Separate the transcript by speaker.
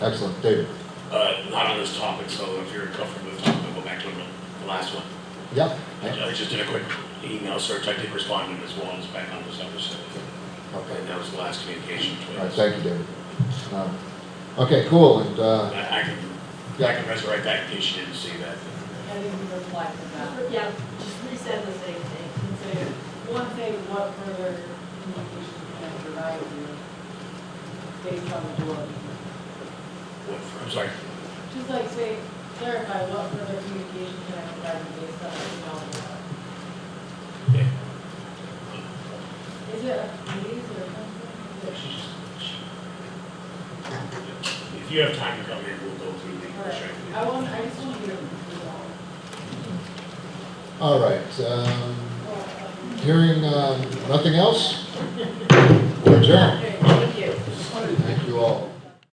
Speaker 1: Excellent, David.
Speaker 2: Uh, not on this topic, so if you're comfortable with the topic, go back to the the last one.
Speaker 1: Yeah,
Speaker 2: I I just did a quick email search, I did respond to Ms. Wallace back on December seventh, and
Speaker 1: okay.
Speaker 2: that was the last communication
Speaker 1: All
Speaker 2: between
Speaker 1: right,
Speaker 2: us.
Speaker 1: thank you, David. Um, Okay, cool, and, uh,
Speaker 2: I I can, I can resurrect that in case you didn't see that.
Speaker 3: I didn't reply to that.
Speaker 4: Yeah, just resend the same thing,
Speaker 3: Consider, one thing, what further communication can I provide you based on the board?
Speaker 2: What, I'm sorry,
Speaker 3: Just like say, clarify what further communication can I provide you based on the board?
Speaker 2: yeah,
Speaker 3: Is it a committee or a
Speaker 2: she's just-
Speaker 3: company?
Speaker 2: she- if you have time to come in, we'll go through the check.
Speaker 3: Or- I want, I just want you to do all.
Speaker 1: all right, um,
Speaker 3: Well, um,
Speaker 1: hearing, um, nothing else? We're adjourned.
Speaker 3: okay, Thank you.
Speaker 1: Thank you all.